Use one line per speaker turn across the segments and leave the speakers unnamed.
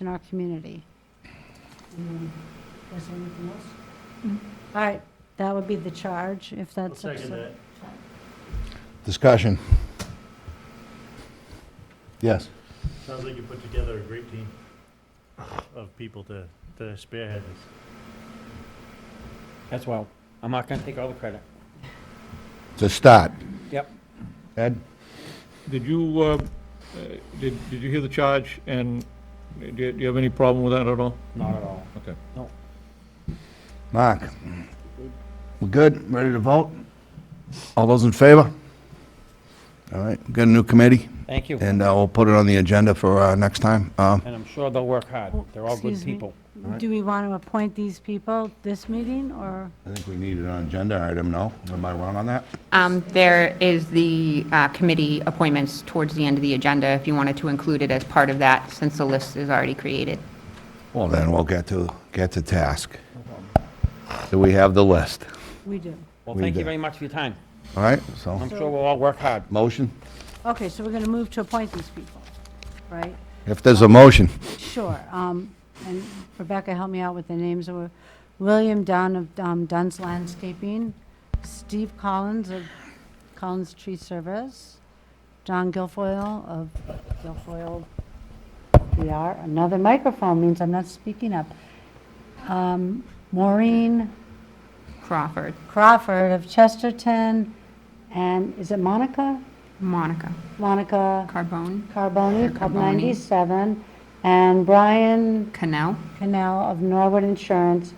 in our community. Um, Was there anything else? Mm-hmm. All right, that would be the charge, if
I'll
that's.
second that.
Discussion. Yes.
Sounds like you put together a great team of people to, to spearhead this.
That's why I'm not gonna take all the credit.
It's a start.
Yep.
Ed?
Did you, uh, uh, did did you hear the charge, and do you do you have any problem with that at all?
Not at all.
Okay.
Mark? We're good? Ready to vote? All those in favor? All right, we've got a new committee,
Thank you.
and uh, we'll put it on the agenda for uh, next time. Um,
And I'm sure they'll work hard. They're all good
Excuse me.
people.
Do we want to appoint these people this meeting, or?
I think we need it on agenda item, no? Am I wrong on that?
Um, There is the uh, committee appointments towards the end of the agenda, if you wanted to include it as part of that, since the list is already created.
Well, then we'll get to, get to task. So we have the list,
We do.
Well,
We
thank you
did.
very much for your time.
all right? So,
I'm sure we'll all work hard.
motion?
Okay, so we're going to move to appoint these people, right?
If there's a motion.
Sure. um, And Rebecca, help me out with the names. of William Dunn of um, Dunn's Landscaping, Steve Collins of Collins Tree Service, John Guilfoyle of Guilfoyle PR. Another microphone means I'm not speaking up. Um, Maureen
Crawford,
Crawford of Chesterton, and is it Monica?
Monica
Monica
Carbone,
Carboni, Club
Carboni.
97, and Brian
Canal,
Canal of Norwood Insurance.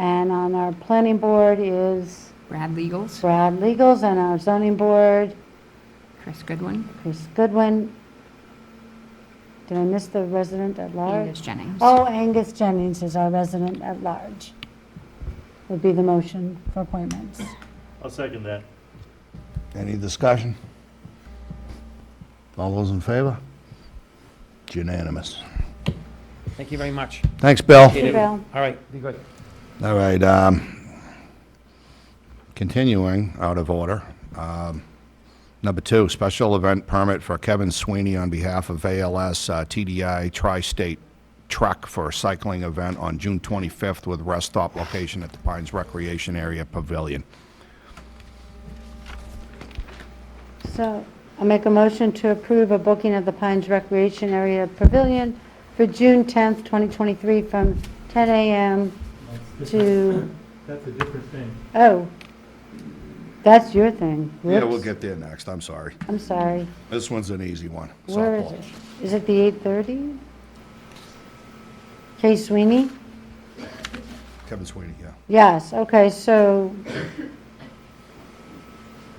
And on our planning board is
Brad Legals,
Brad Legals, and our zoning board,
Chris Goodwin,
Chris Goodwin. Did I miss the resident at
Angus
large?
Jennings.
Oh, Angus Jennings is our resident at large. Would be the motion for appointments.
I'll second that.
Any discussion? All those in favor? It's unanimous.
Thank you very much.
Thanks, Bill.
Appreciate it.
Bill.
All right, be good.
All right, um, continuing out of order. um, Number two, special event permit for Kevin Sweeney on behalf of ALS uh, TDI Tri-State Truck for a cycling event on June 25th with rest stop location at the Pines Recreation Area Pavilion.
So I'll make a motion to approve a booking of the Pines Recreation Area Pavilion for June 10th, 2023, from 10 a.m. to
That's a different thing.
Oh, that's your thing.
Yeah, we'll
Whoops.
get there next, I'm sorry.
I'm sorry.
This one's an easy one.
Where is
softball.
it? Is it the 8:30? Kay Sweeney?
Kevin Sweeney, yeah.
Yes, okay, so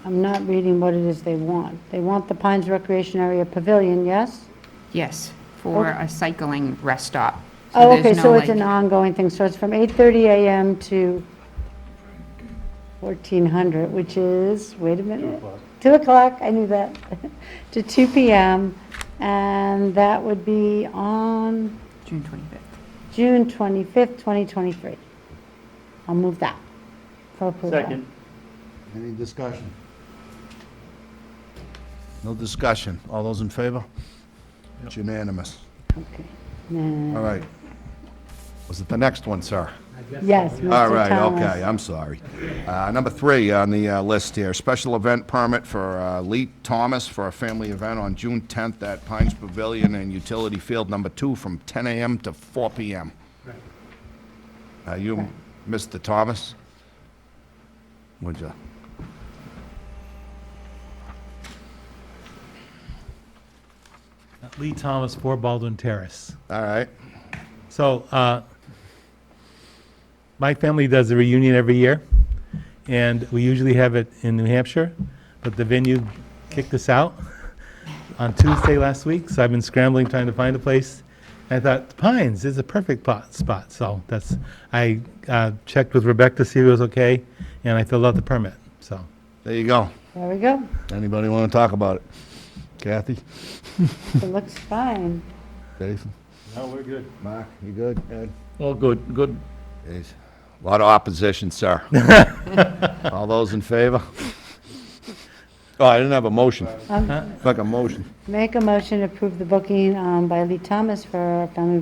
I'm not reading what it is they want. They want the Pines Recreation Area Pavilion, yes?
Yes, for
Okay.
a cycling rest stop.
Oh,
there's
okay,
no,
so it's
like-
an ongoing thing, so it's from 8:30 a.m. to 1400, which is, wait a minute. 2 o'clock, I knew that, to 2 p.m., and that would be on
June 25th.
June 25th, 2023. I'll move that for approval.
Second.
Any discussion? No discussion. All those in favor? It's unanimous.
Okay. Nah.
All right. Was it the next one, sir?
Yes, Mr.
All right,
Thomas.
okay, I'm sorry. Uh, Number three on the uh, list here, special event permit for uh, Lee Thomas for a family event on June 10th at Pines Pavilion and Utility Field Number Two from 10 a.m. to 4 p.m. Uh, You, Mr. Thomas? Would you?
Lee Thomas, 4 Baldwin Terrace.
All right.
So uh, my family does a reunion every year, and we usually have it in New Hampshire, but the venue kicked us out on Tuesday last week, so I've been scrambling trying to find a place. I thought Pines is a perfect pot- spot, so that's, I uh, checked with Rebecca to see if it was okay, and I filled out the permit, so.
There you go.
There we go.
Anybody want to talk about it? Kathy?
It looks fine.
Jason?
No, we're good.
Mark, you good? Ed?
All good, good.
A lot of opposition, sir. All those in favor? Oh, I didn't have a motion.
Um,
Like a motion.
Make a motion to approve the booking um, by Lee Thomas for a family